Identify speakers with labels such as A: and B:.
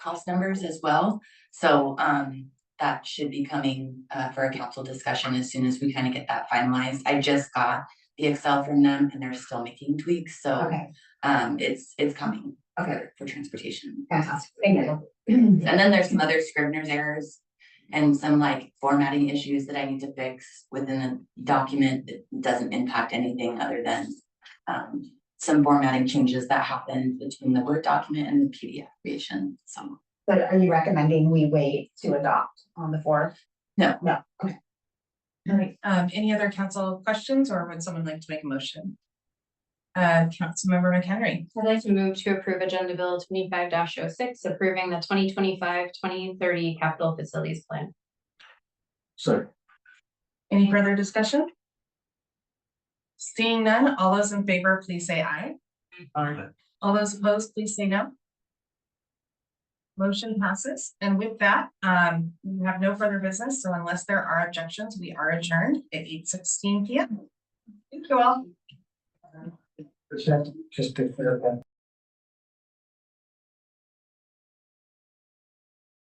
A: cost numbers as well. So um that should be coming uh for a council discussion as soon as we kind of get that finalized. I just got the Excel from them and they're still making tweaks, so
B: Okay,
A: um it's it's coming
B: okay,
A: for for transportation.
B: fantastic, thank you.
A: And then there's some other Scrivener's errors and some like formatting issues that I need to fix within the document that doesn't impact anything other than um some formatting changes that happened between the Word document and the PDF creation, so.
B: But are you recommending we wait to adopt on the fourth?
A: No.
B: No, okay.
C: All right, um, any other council questions or would someone like to make a motion? Uh, Councilmember McHenry,
D: I'd like to move to approve Agenda Bill twenty-five 6 approving the 2025-2030 capital facilities plan.
E: Second.
C: any further discussion? Seeing none, all those in favor, please say aye.
E: Aye.
C: All those opposed, please say no. Motion passes, and with that, um, we have no further business, so unless there are objections, we are adjourned at eight sixteen P M. Thank you all.
E: Just to clarify,